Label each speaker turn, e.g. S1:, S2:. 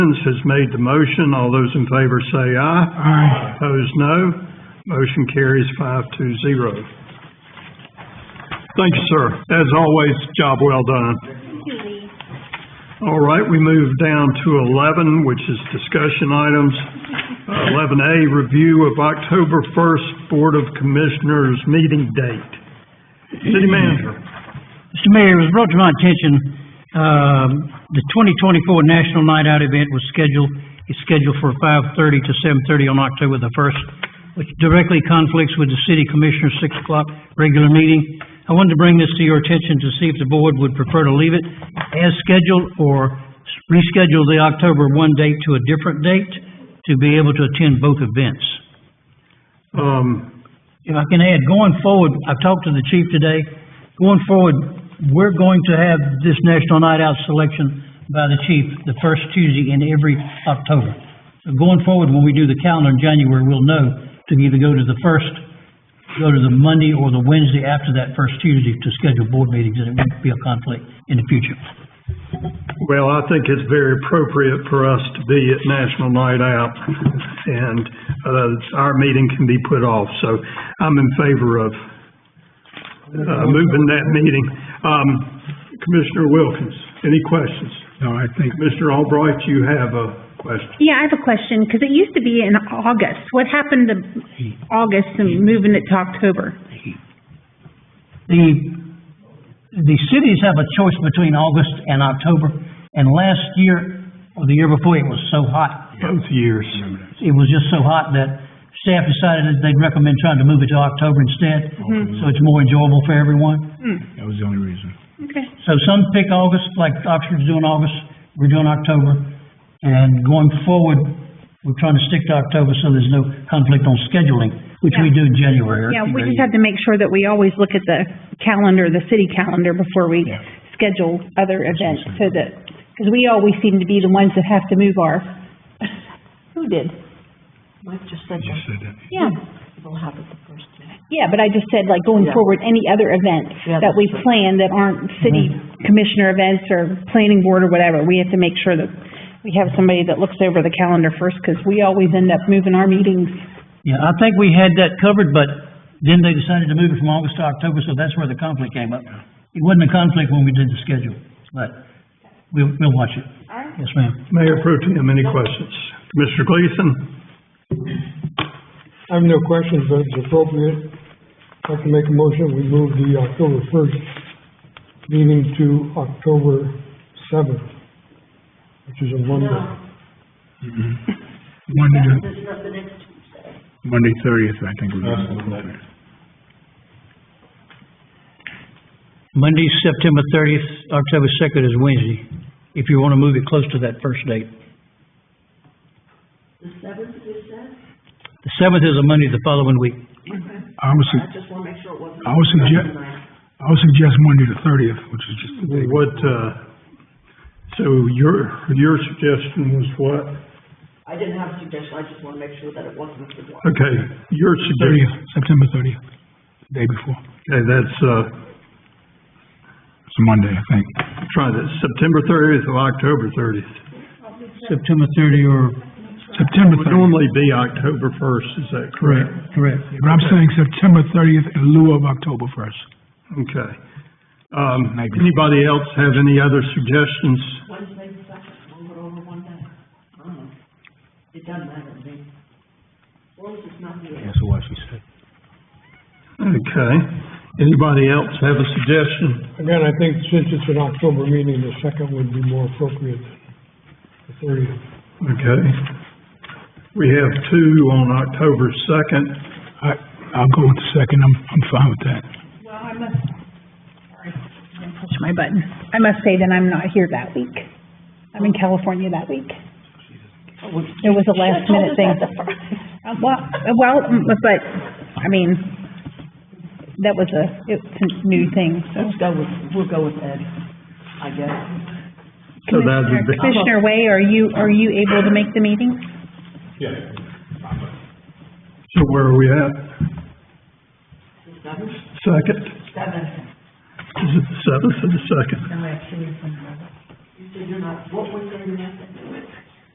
S1: has made the motion. All those in favor say aye.
S2: Aye.
S1: Opposed, no. Motion carries five to zero. Thank you, sir. As always, job well done. All right, we move down to eleven, which is discussion items. Eleven A, review of October first Board of Commissioners meeting date. City manager.
S2: Mr. Mayor, it was brought to my attention, um, the twenty twenty-four National Night Out event was scheduled, is scheduled for five thirty to seven thirty on October the first, which directly conflicts with the city commissioner's six o'clock regular meeting. I wanted to bring this to your attention to see if the board would prefer to leave it as scheduled or reschedule the October one date to a different date to be able to attend both events.
S1: Um,
S2: If I can add, going forward, I talked to the chief today, going forward, we're going to have this National Night Out selection by the chief the first Tuesday in every October. So Going forward, when we do the calendar in January, we'll know to either go to the first, go to the Monday or the Wednesday after that first Tuesday to schedule board meetings, and it won't be a conflict in the future.
S1: Well, I think it's very appropriate for us to be at National Night Out, and uh, our meeting can be put off, so I'm in favor of uh, moving that meeting. Um, Commissioner Wilkins, any questions?
S3: No, I think,
S1: Commissioner Albright, you have a question.
S4: Yeah, I have a question, because it used to be in August. What happened to August and moving it to October?
S2: The, the cities have a choice between August and October, and last year, or the year before, it was so hot,
S1: Both years.
S2: it was just so hot that staff decided that they'd recommend trying to move it to October instead,
S4: Mm-hmm.
S2: so it's more enjoyable for everyone.
S3: that was the only reason.
S4: Okay.
S2: So some pick August, like Oxford's doing August, we're doing October, and going forward, we're trying to stick to October so there's no conflict on scheduling, which we do in January.
S4: Yeah, we just have to make sure that we always look at the calendar, the city calendar, before we
S3: Yeah.
S4: schedule other events, so that, because we always seem to be the ones that have to move our, who did?
S5: Mike just said
S3: You said that.
S4: Yeah,
S5: we'll have it the first day.
S4: yeah, but I just said, like, going
S5: Yeah.
S4: forward, any other events
S5: Yeah,
S4: that we
S5: that's right.
S4: plan
S5: Mm-hmm.
S4: that aren't city commissioner events or planning board or whatever, we have to make sure that we have somebody that looks over the calendar first, because we always end up moving our meetings.
S2: Yeah, I think we had that covered, but then they decided to move it from August to October, so that's where the conflict came up. It wasn't a conflict when we did the schedule, but we'll, we'll watch it. Yes, ma'am.
S1: Mayor Pro Tem, any questions? Commissioner Gleason?
S6: I have no questions, but it's appropriate. I can make a motion, we move the October first meeting to October seventh, which is a Monday.
S3: Monday, Monday thirtieth, I think we're going
S2: Monday, September thirtieth, October second is Wednesday, if you want to move it close to that first date. The seventh is that? The seventh is a Monday the following week.
S3: I would
S5: I
S3: su-
S5: just wanna make sure it wasn't.
S3: I would suggest, I would suggest Monday the thirtieth, which is just,
S1: What, uh, so your, your suggestion was what?
S5: I didn't have a suggestion, I just wanna make sure that it wasn't a good one.
S1: Okay, your suggestion,
S3: thirtieth, September thirtieth, the day before.
S1: okay, that's, uh,
S3: It's a Monday, I think.
S1: try this, September thirtieth or October thirtieth.
S2: September thirty or,
S3: September
S1: Would
S3: thirtieth,
S1: normally be October first, is that
S2: correct,
S1: correct?
S2: correct.
S3: but I'm saying September thirtieth in lieu of October first.
S1: Okay. Um,
S3: Maybe.
S1: anybody else have any other suggestions?
S5: Wednesday, the second, move it over one day. I don't know. Uh-huh. It doesn't matter to me. As long as it's not the eighth.
S3: That's what she said.
S1: Okay. Anybody else have a suggestion?
S6: Again, I think since it's an October meeting, the second would be more appropriate than the thirtieth.
S1: Okay. We have two on October second.
S3: I, I'll go with the second, I'm, I'm fine with that.
S4: Push my button. I must say that I'm not here that week. I'm in California that week. It was a last minute thing. Uh, Well, uh, well, mm, but, I mean, that was a, it's a new thing, so.
S5: Let's go with, we'll go with Ed, I guess.
S1: So that would be,
S4: Commissioner Way, are you, are you able to make the meeting?
S1: so where are we at?
S5: Seven,
S1: Second?
S5: seven.
S1: Is it the seventh or the second?
S5: You said you're not, what was the last?